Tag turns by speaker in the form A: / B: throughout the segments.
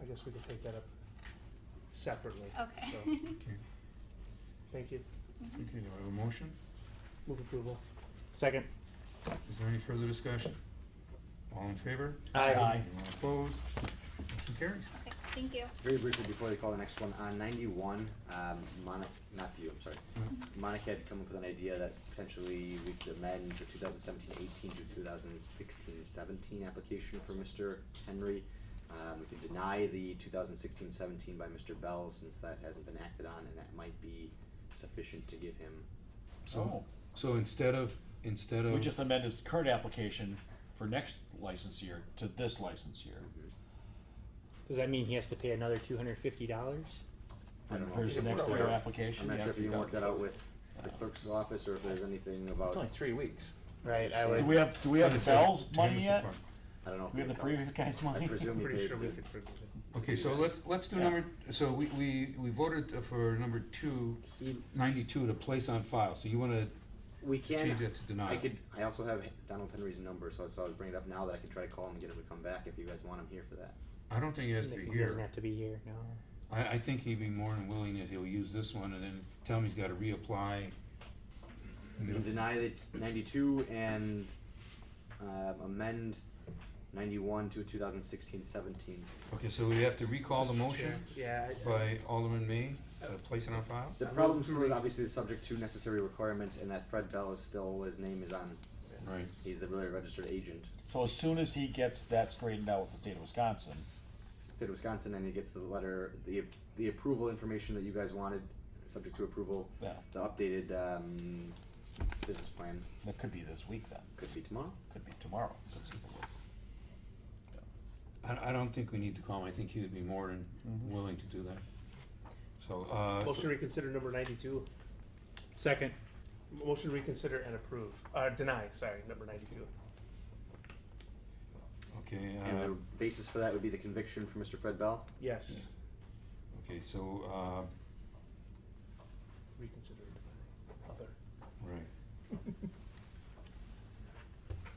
A: I guess we could take that up separately.
B: Okay.
A: So,
C: Okay,
A: Thank you.
C: okay, do I have a motion?
A: Move approval. Second.
C: Is there any further discussion? All in favor?
A: Aye. Aye.
C: Anyone opposed? Motion carries.
B: Okay, thank you.
D: Very briefly before they call the next one, on ninety-one, um, Monic, not you, I'm sorry. Monic had come up with an idea that potentially we could amend the 2017-18 to 2016-17 application for Mr. Henry. Um, we could deny the 2016-17 by Mr. Bell since that hasn't been acted on and that might be sufficient to give him,
C: So,
D: Oh.
C: so instead of, instead
E: We
C: of,
E: just amend his current application for next license year to this license year.
F: Does that mean he has to pay another two hundred fifty dollars?
D: I
E: For
D: don't know.
E: for his next year
D: I'm
E: application,
D: not sure
E: yes.
D: if you
E: he
D: can work
E: does.
D: that out with the clerk's office or if there's anything about, I
G: three weeks.
F: Right, I
E: Do
F: would.
E: we have, do we have
C: It's a-
E: Bell's
C: it's a
E: money
C: Jameson
E: yet?
C: Park.
D: don't know. if
E: We have the
D: can-
E: previous guy's
D: I
E: money?
D: presume he
A: Pretty
D: paid
A: sure we
D: the-
A: could figure it
C: Okay, so let's, let's do
E: Yeah.
C: number, so we, we, we voted for number two,
D: he
C: ninety-two to place on file, so you wanna
D: We can.
C: change that to deny?
D: I could. I also have Donald Henry's number, so I thought I'd bring it up now that I could try to call him and get him to come back if you guys want him here for that.
C: I don't think it has to be
F: He doesn't
C: here.
F: have to be here, no.
C: I, I think he'd be more than willing that he'll use this one and then tell me he's gotta reapply.
D: You can deny the 92 and um, amend 91 to 2016 17.
C: Okay, so we have to recall the
A: Mr.
C: motion
A: Chair. Yeah. I-
C: by Alderman May, to place it on file?
D: The
A: I
D: problem
A: move to
D: still is
A: re-
D: obviously the subject to necessary requirements, and that Fred Bell is still his name is on.
C: Right.
D: He's the really registered agent,
E: So as soon as he gets that straightened out with the state of Wisconsin,
D: state of Wisconsin, and he gets the letter, the the approval information that you guys wanted, subject to approval,
E: yeah,
D: the updated um, business plan
E: that could be this week then,
D: could be tomorrow.
E: could be tomorrow. since he will.
C: I, I don't think we need to call him, I think he would be more than willing to do that. So, uh,
A: Motion
C: so-
A: to reconsider number ninety-two.
F: Second.
A: Motion to reconsider and approve, uh, deny, sorry, number ninety-two.
C: okay,
D: And the
C: uh,
D: basis for that would be the conviction for Mr. Fred Bell.
A: Yes,
C: okay, so, uh,
A: reconsider and deny. Other.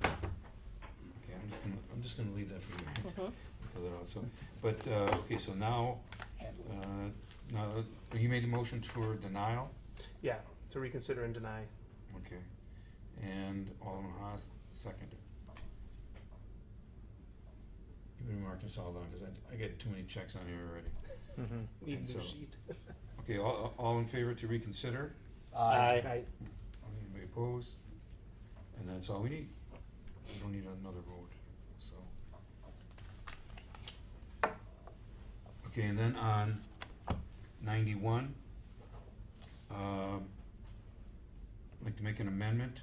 C: Right. Okay, I'm just gonna, I'm just gonna leave that for you. Fill that out, so, but, uh, okay, so now, uh, now, you made the motion for denial,
A: Yeah, to reconsider and deny.
C: okay, and Alderman Haas seconded. You've been marking this all down, cause I, I get too many checks on here already.
F: Mm-hmm.
A: Need
C: And
A: new
C: so-
A: sheet.
C: Okay, all, all in favor to reconsider?
E: Aye.
A: Aye.
C: Anybody opposed? And that's all we need. We don't need another vote, so. Okay, and then on ninety-one, um, I'd like to make an amendment.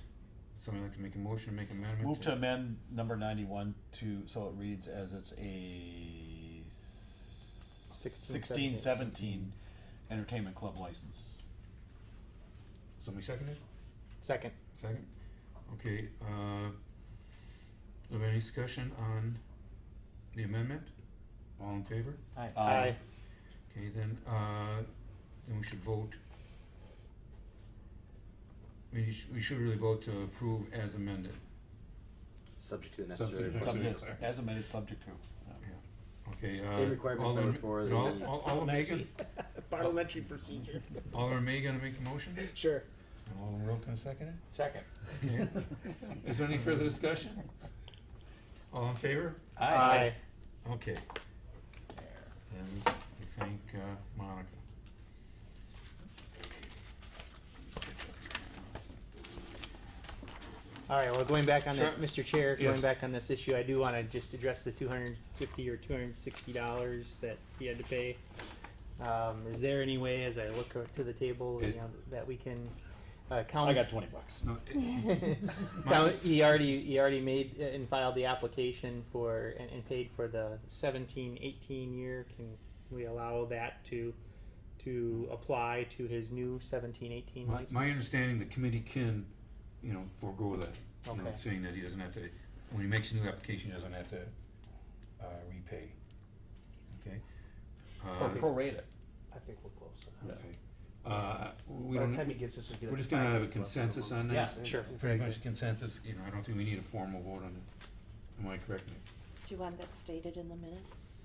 C: Somebody like to make a motion, to make an amendment?
E: Move to amend number ninety-one to, so it reads as it's a s-
F: Sixteen, seventeen.
E: sixteen seventeen entertainment club license.
C: Somebody second it?
F: Second.
C: Second? Okay, uh, have any discussion on the amendment? All in favor?
F: Aye.
E: Aye.
C: Okay, then, uh, then we should vote. We should, we should really vote to approve as amended,
D: Subject to the
C: Subject
D: necessary.
C: to-
D: requirements.
E: Subject, as amended, subject to. yeah.
C: okay, uh.
D: Same requirements that were
C: Alderman-
D: for
C: no,
D: the-
C: Al- Alderman Megan,
F: Parliamentary procedure.
C: Alderman May gonna make the motion? And
F: Sure.
C: Alderman Rowe gonna second it?
G: Second.
C: Okay. Is there any further discussion? All in favor?
F: Aye.
C: Okay. And I thank uh, Monica.
F: All right, well, going back on
C: Sure.
F: that, Mr. Chair,
C: Yes.
F: going back on this issue, I do want to just address the two hundred fifty or two hundred sixty dollars that he had to pay. Um, is there any way, as I look o- to the table, you
C: It-
F: know, that we can, uh, count?
E: I got twenty bucks.
C: No, it-
F: Now, he already, he already made uh, and filed the application for, and, and paid for the seventeen, eighteen year, can we allow that to, to apply to his new seventeen, eighteen
C: My,
F: license?
C: my understanding, the committee can, you know, forego that, you know,
F: Okay.
C: saying that he doesn't have to, when he makes a new application, he doesn't have to, uh, repay. Okay?
E: Or
C: Uh,
E: prorate it.
A: I think we're close. enough.
C: okay. Uh, we
A: By the time he
C: don't,
A: gets this, we'll get.
C: we're
A: it
C: just gonna have a
A: finalized.
C: consensus on that?
E: Yeah.
F: Sure.
C: Pretty much a consensus, you know, I don't think we need a formal vote on it. Am I correct?
H: Do you want that stated in the minutes?